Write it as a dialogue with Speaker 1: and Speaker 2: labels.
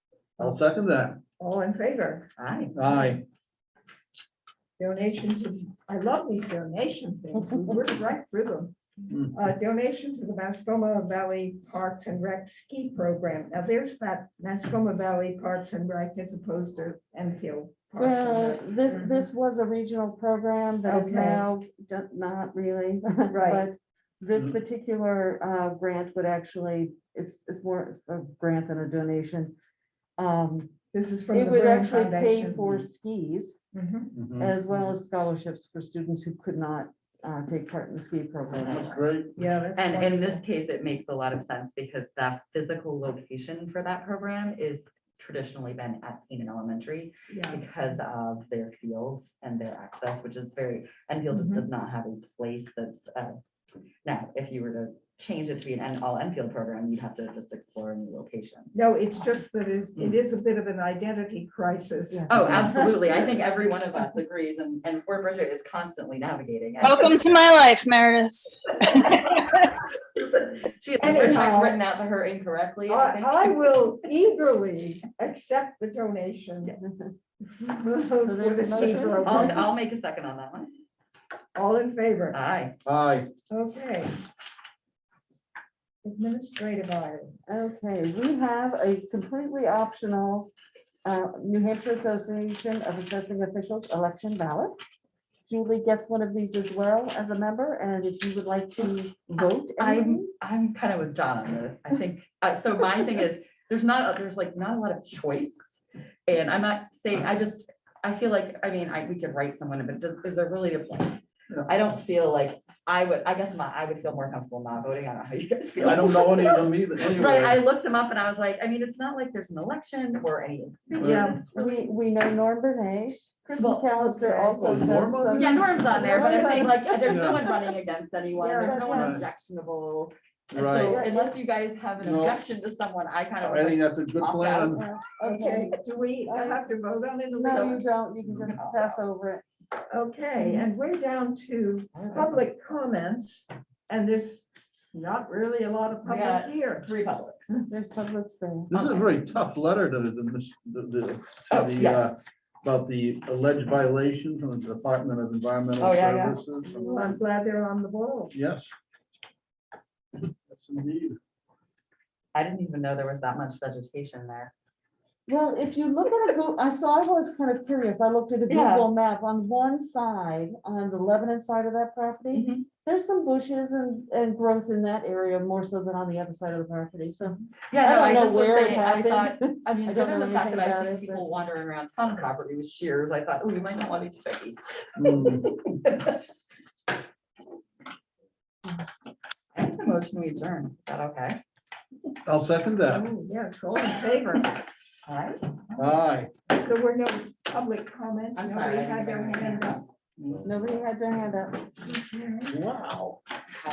Speaker 1: I'll second that.
Speaker 2: All in favor? Aye.
Speaker 1: Aye.
Speaker 2: Donations, I love these donation things. We worked right through them.
Speaker 1: Mm.
Speaker 2: Uh, donation to the Mascoma Valley Parks and Rec Ski Program. Now there's that Mascoma Valley Parks and Rec as opposed to Enfield. Parks and
Speaker 3: Well,
Speaker 2: Rec.
Speaker 3: this,
Speaker 1: Mm-hmm.
Speaker 2: Mhm.
Speaker 3: this was a regional program that is
Speaker 2: Okay.
Speaker 3: now d- not really.
Speaker 2: Right.
Speaker 3: but This
Speaker 1: Mm.
Speaker 3: particular uh, grant would actually, it's, it's more of a grant than a donation. Um,
Speaker 2: This is from the
Speaker 3: It would
Speaker 2: Byrne
Speaker 3: actually pay
Speaker 2: Foundation.
Speaker 3: for skis
Speaker 2: Mhm.
Speaker 1: Mhm.
Speaker 3: as well as scholarships for students who could not uh, take part in the ski program.
Speaker 1: That's great.
Speaker 2: Yeah. that's
Speaker 4: And in this
Speaker 2: wonderful.
Speaker 4: case, it makes a lot of sense because the physical location for that program is traditionally been at Keenan Elementary
Speaker 2: Yeah.
Speaker 4: because of their fields and their access, which is very, Enfield just does not have a place that's, uh, now, if you were to change it to be an en- all Enfield program, you'd have to just explore a new location.
Speaker 2: No, it's just that it's-
Speaker 4: Mm.
Speaker 2: it is a bit of an identity crisis.
Speaker 3: Yeah.
Speaker 4: Oh, absolutely. I think every one of us agrees and, and Fort Bridger is constantly navigating. it.
Speaker 5: Welcome to my life, Meredith.
Speaker 4: She had the
Speaker 2: Anyhow.
Speaker 4: contracts written out to her incorrectly. I think.
Speaker 2: I, I will eagerly accept the donation. for the
Speaker 3: there's a
Speaker 2: ski
Speaker 3: motion.
Speaker 2: program.
Speaker 4: I'll, I'll Uh. make a second on that one.
Speaker 2: All in favor?
Speaker 4: Aye.
Speaker 1: Aye.
Speaker 2: Okay. Administrative items.
Speaker 3: Okay, we have a completely optional uh, New Hampshire Association of Assessing Officials election ballot. Julie gets one of these as well as a member, and if you would like to vote.
Speaker 4: Um, I'm, I'm kind of with John on this. I think, uh, so my thing is, there's not, a- there's like not a lot of choice. And I'm not saying, I just, I feel like, I mean, I, we could write someone, but does, is there really a point?
Speaker 1: Yeah.
Speaker 4: I don't feel like, I would, I guess my, I would feel more comfortable not voting. I don't know how you guys feel.
Speaker 1: I don't know any of them either.
Speaker 4: Right, I
Speaker 1: anyway.
Speaker 4: looked them up and I was like, I mean, it's not like there's an election or any.
Speaker 2: Yeah.
Speaker 4: It's really-
Speaker 3: We, we know Norm Bernay, Chris
Speaker 4: Well,
Speaker 3: McAllister
Speaker 2: okay.
Speaker 3: also
Speaker 1: Oh,
Speaker 3: does
Speaker 1: Norm on
Speaker 3: some.
Speaker 4: Yeah, Norm's on there, but I'm saying like, there's no
Speaker 1: Yeah.
Speaker 4: one running against anyone. There's no one
Speaker 1: Right.
Speaker 4: objectionable. And
Speaker 1: Right.
Speaker 4: So unless you guys have an
Speaker 1: No.
Speaker 4: objection to someone, I kind of.
Speaker 1: I think that's a good
Speaker 4: Opt out.
Speaker 1: plan.
Speaker 3: Okay,
Speaker 2: Okay, do we
Speaker 3: I-
Speaker 2: have to vote on it?
Speaker 3: no, you don't, you can just pass over it.
Speaker 2: Okay, and we're down to public comments, and there's not really a lot of
Speaker 4: We got-
Speaker 2: public here.
Speaker 4: Three publics.
Speaker 3: There's public thing.
Speaker 1: This is a
Speaker 4: Okay.
Speaker 1: very tough letter to the, mis- the- the, to
Speaker 4: Oh,
Speaker 1: the, uh,
Speaker 4: yes.
Speaker 1: about the alleged violation from the Department of Environmental
Speaker 4: Oh, yeah, yeah.
Speaker 1: Services.
Speaker 2: I'm glad they're on the ball.
Speaker 1: Yes. Yes, indeed.
Speaker 4: I didn't even know there was that much vegetation there.
Speaker 3: Well, if you look at a Google, I saw, I was kind of curious, I looked at a
Speaker 4: Yeah.
Speaker 3: Google map on one side, on the Lebanon side of that property.
Speaker 4: Mhm.
Speaker 3: There's some bushes and, and growth in that area more so than on the other side of the property, so.
Speaker 4: Yeah, no,
Speaker 3: don't
Speaker 4: I
Speaker 3: know
Speaker 4: just was
Speaker 3: where it
Speaker 4: saying, I thought,
Speaker 3: happened.
Speaker 4: I mean,
Speaker 3: I don't
Speaker 4: given
Speaker 3: know
Speaker 4: the fact
Speaker 3: anything
Speaker 4: that I've
Speaker 3: about
Speaker 4: seen
Speaker 3: it, but-
Speaker 4: people wandering around town property with shears, I thought, oh, we might not want to be too picky.
Speaker 1: Hmm.
Speaker 4: I think the motion we adjourn, is that okay?
Speaker 1: I'll second that.
Speaker 2: Oh, Yes, all in favor.
Speaker 4: All right.
Speaker 1: Aye.
Speaker 2: There were no public comments.
Speaker 4: I'm
Speaker 2: Nobody
Speaker 4: sorry. I
Speaker 2: had
Speaker 4: didn't
Speaker 2: their
Speaker 4: get my
Speaker 2: hand
Speaker 4: hand
Speaker 2: up.
Speaker 4: up.
Speaker 3: Nobody had their hand up.
Speaker 1: Wow.